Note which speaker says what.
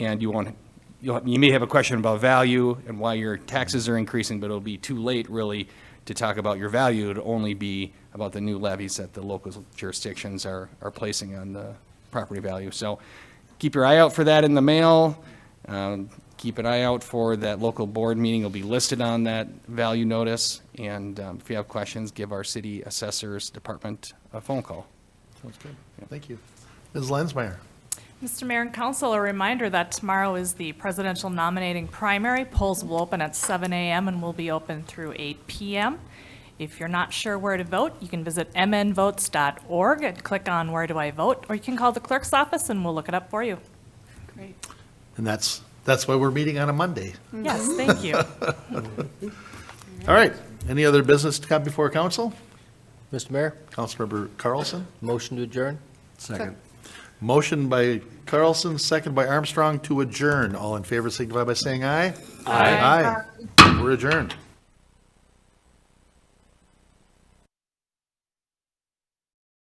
Speaker 1: and you won't, you'll, you may have a question about value and why your taxes are increasing, but it'll be too late, really, to talk about your value. It'll only be about the new levies that the local jurisdictions are, are placing on the property value. So keep your eye out for that in the mail. Um, Keep an eye out for that local board meeting. It'll be listed on that value notice. And um, if you have questions, give our city assessors department a phone call.
Speaker 2: Sounds good. Thank you. Ms. Lensmeyer?
Speaker 3: Mr. Mayor and Council, a reminder that tomorrow is the presidential nominating primary. Polls will open at 7 a.m. and will be open through 8 p.m. If you're not sure where to vote, you can visit mnvotes.org and click on Where Do I Vote? Or you can call the clerk's office and we'll look it up for you.
Speaker 4: Great.
Speaker 2: And that's, that's why we're meeting on a Monday.
Speaker 3: Yes, thank you.
Speaker 2: All right. Any other business to come before council?
Speaker 5: Mr. Mayor,
Speaker 2: Councilmember Carlson?
Speaker 5: motion to adjourn?
Speaker 2: Second. Motion by Carlson, second by Armstrong to adjourn. All in favor signify by saying aye. Aye. Aye. We're adjourned.